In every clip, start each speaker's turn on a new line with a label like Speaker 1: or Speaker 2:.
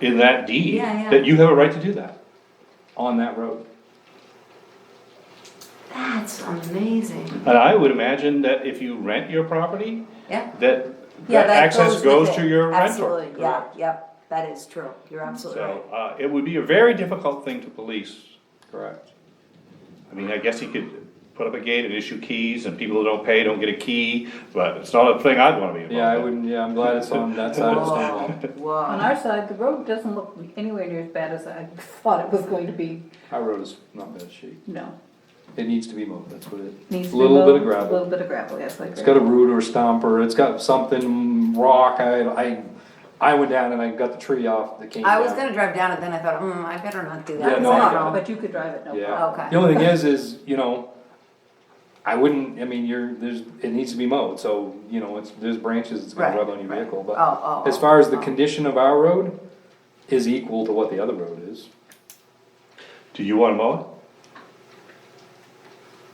Speaker 1: in that deed,
Speaker 2: Yeah, yeah.
Speaker 1: that you have a right to do that on that road.
Speaker 2: That's amazing.
Speaker 1: And I would imagine that if you rent your property,
Speaker 2: Yeah.
Speaker 1: that,
Speaker 2: Yeah,
Speaker 1: that access
Speaker 2: with
Speaker 1: goes
Speaker 2: it.
Speaker 1: to your rental.
Speaker 2: Absolutely, yeah, yep, that is true. You're absolutely right.
Speaker 1: So, uh, it would be a very difficult thing to police. Correct. I mean, I guess he could put up a gate and issue keys, and people who don't pay don't get a key, but it's not a thing I'd wanna be involved in.
Speaker 3: Yeah, I wouldn't, yeah, I'm glad it's on that side of
Speaker 2: Whoa,
Speaker 3: Stonewall.
Speaker 4: On
Speaker 2: whoa.
Speaker 4: our side, the road doesn't look anywhere near as bad as I thought it was going to be,
Speaker 3: Our road is not bad shape.
Speaker 4: no.
Speaker 3: It needs to be mowed, that's what it,
Speaker 4: Needs to
Speaker 3: a
Speaker 4: be
Speaker 3: little bit of
Speaker 4: mowed, a Little
Speaker 3: gravel.
Speaker 4: bit of gravel, yes, like
Speaker 3: It's got a
Speaker 4: gravel.
Speaker 3: root or stump or it's got something, rock, I, I, I went down and I got the tree off that came down.
Speaker 2: I was gonna drive down it, then I thought, hmm, I better not do that.
Speaker 3: Yeah,
Speaker 4: It's
Speaker 3: no, I
Speaker 4: not,
Speaker 3: got it.
Speaker 4: But you could drive it, no problem.
Speaker 3: Yeah.
Speaker 2: Okay.
Speaker 3: The only thing is, is, you know, I wouldn't, I mean, you're, there's, it needs to be mowed, so, you know, it's, there's branches that's gonna
Speaker 2: Right,
Speaker 3: rub on your
Speaker 2: right.
Speaker 3: vehicle,
Speaker 2: Oh, oh,
Speaker 3: but as
Speaker 2: oh,
Speaker 3: far as the
Speaker 2: oh.
Speaker 3: condition of our road is equal to what the other road is,
Speaker 1: Do you wanna mow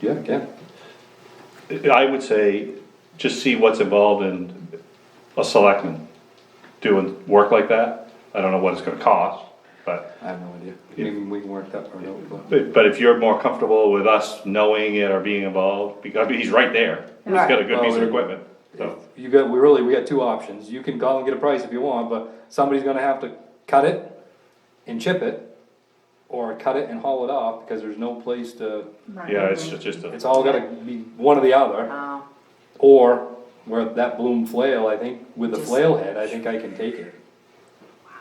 Speaker 3: yeah, yeah.
Speaker 1: it? I would say, just see what's involved in a selectman doing work like that. I don't know what it's gonna cost, but,
Speaker 3: I have no idea, I mean, we can work that part out, but.
Speaker 1: but if you're more comfortable with us knowing it or being involved, because he's right there. He's got a good piece of equipment, so.
Speaker 3: You got, we really, we got two options, you can call and get a price if you want, but somebody's gonna have to cut it and chip it, or cut it and haul it off, because there's no place to,
Speaker 4: Right.
Speaker 1: Yeah, it's just, just
Speaker 3: it's
Speaker 1: a,
Speaker 3: all gotta be one or the other.
Speaker 2: Oh,
Speaker 3: Or where that bloom flail, I think, with the
Speaker 2: Just-
Speaker 3: flail head, I think I can take it.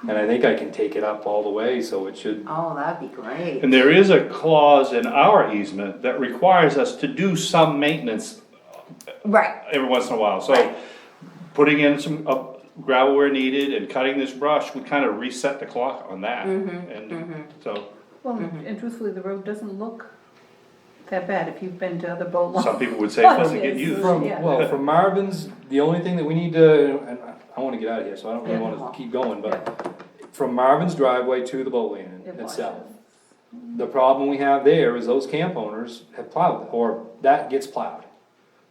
Speaker 3: And I think I can take it up all the way, so it should,
Speaker 2: oh, that'd be great.
Speaker 1: and there is a clause in our easement that requires us to do some maintenance
Speaker 2: Right,
Speaker 1: every once in a while, so.
Speaker 2: Right.
Speaker 1: Putting in some uh, gravel where needed and cutting this brush would kind of reset the clock on that, and so,
Speaker 4: Well, and truthfully, the road doesn't look that bad if you've been to other boat launches.
Speaker 1: some people would say it doesn't get
Speaker 4: Yes.
Speaker 1: used.
Speaker 3: from,
Speaker 4: Yeah.
Speaker 3: well, from Marvin's, the only thing that we need to, and I- I wanna get out of here, so I don't really wanna keep going, but. From Marvin's driveway to the boat landing
Speaker 4: It
Speaker 3: itself. The problem we have there is those camp owners have plowed, or that gets plowed.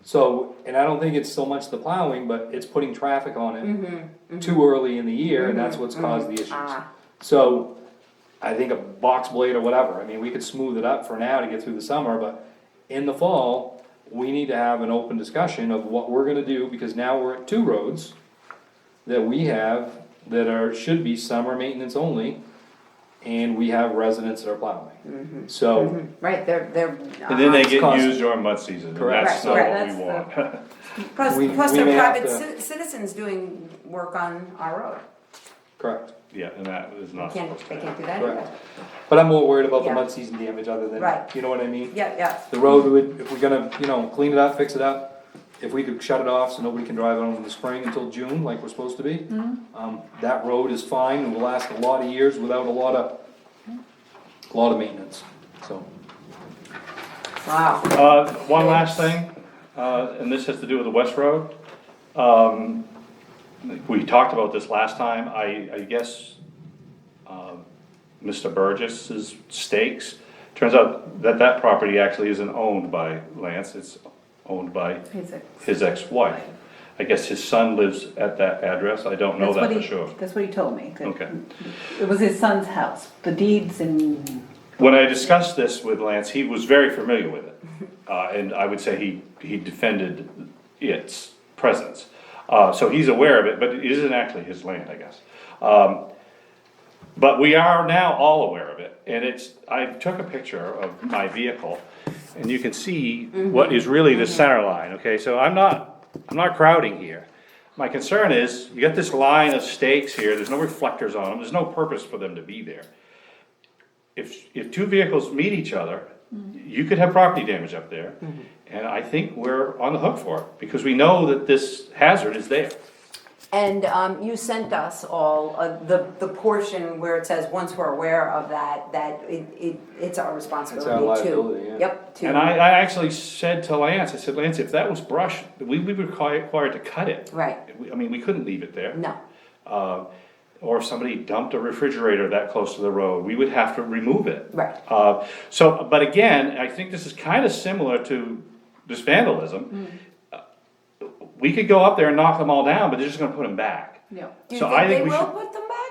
Speaker 3: So, and I don't think it's so much the plowing, but it's putting traffic on
Speaker 2: Mm-hmm,
Speaker 3: it too early in the year, and that's what's caused the issues.
Speaker 2: Ah.
Speaker 3: So, I think a box blade or whatever, I mean, we could smooth it up for now to get through the summer, but in the fall, we need to have an open discussion of what we're gonna do, because now we're at two roads that we have that are, should be summer maintenance only, and we have residents that are
Speaker 2: Mm-hmm,
Speaker 3: plowing. So,
Speaker 2: right, they're, they're.
Speaker 1: And then they
Speaker 2: uh-huh.
Speaker 1: get
Speaker 3: Cost.
Speaker 1: used during mud season, and
Speaker 3: Correct.
Speaker 1: that's not
Speaker 2: Right,
Speaker 1: what we
Speaker 4: right,
Speaker 1: want.
Speaker 4: that's
Speaker 2: Plus,
Speaker 3: we-
Speaker 2: plus
Speaker 3: we
Speaker 2: they're
Speaker 3: may have
Speaker 2: private
Speaker 3: to-
Speaker 2: ci- citizens doing work on our road.
Speaker 3: correct.
Speaker 1: Yeah, and that is not
Speaker 2: Can't,
Speaker 1: supposed to
Speaker 2: they can't do
Speaker 1: happen.
Speaker 2: that
Speaker 3: Correct.
Speaker 2: either.
Speaker 3: But I'm more worried about the
Speaker 2: Yeah.
Speaker 3: mud season damage other than,
Speaker 2: Right.
Speaker 3: you know what I mean?
Speaker 2: Yeah, yeah,
Speaker 3: The road would, if we're gonna, you know, clean it up, fix it up, if we could shut it off so nobody can drive on it in the spring until June, like we're supposed to be. Um, that road is fine and will last a lot of years without a lot of, a lot of maintenance, so.
Speaker 2: wow.
Speaker 1: Uh, one last thing, uh, and this has to do with the West Road. Um, we talked about this last time, I, I guess, um, Mr. Burgess's stakes. Turns out that that property actually isn't owned by Lance, it's owned by
Speaker 4: He's a-
Speaker 1: his ex-wife. I guess his son lives at that address, I don't know
Speaker 4: That's
Speaker 1: that
Speaker 4: what
Speaker 1: for
Speaker 4: he,
Speaker 1: sure.
Speaker 4: that's what he told me. that
Speaker 1: Okay.
Speaker 4: It was his son's house, the deeds and,
Speaker 1: When I discussed this with Lance, he was very familiar with it, uh, and I would say he, he defended its presence. Uh, so he's aware of it, but it isn't actually his land, I guess. Um, but we are now all aware of it, and it's, I took a picture of my vehicle, and you can see what is really the center line, okay, so I'm not, I'm not crowding here. My concern is, you got this line of stakes here, there's no reflectors on them, there's no purpose for them to be there if, if two vehicles meet each other,
Speaker 2: Mm-hmm.
Speaker 1: you could have property damage up there. And I think we're on the hook for it, because we know that this hazard is there.
Speaker 2: And um, you sent us all uh, the, the portion where it says, once we're aware of that, that it, it, it's our responsibility to.
Speaker 3: liability, yeah.
Speaker 2: Yep, to.
Speaker 1: And I, I actually said to Lance, I said, Lance, if that was brush, we would be required required to cut it.
Speaker 2: Right,
Speaker 1: We- I mean, we couldn't leave it there.
Speaker 2: no,
Speaker 1: Uh, Or if somebody dumped a refrigerator that close to the road, we would have to remove it.
Speaker 2: Right.
Speaker 1: Uh, So, but again, I think this is kind of similar to this vandalism. Uh, We could go up there and knock them all down, but they're just gonna put them back.
Speaker 4: you know.
Speaker 2: do you
Speaker 1: So
Speaker 2: think
Speaker 1: I think
Speaker 2: they
Speaker 1: we
Speaker 2: will
Speaker 1: should-
Speaker 2: put them back?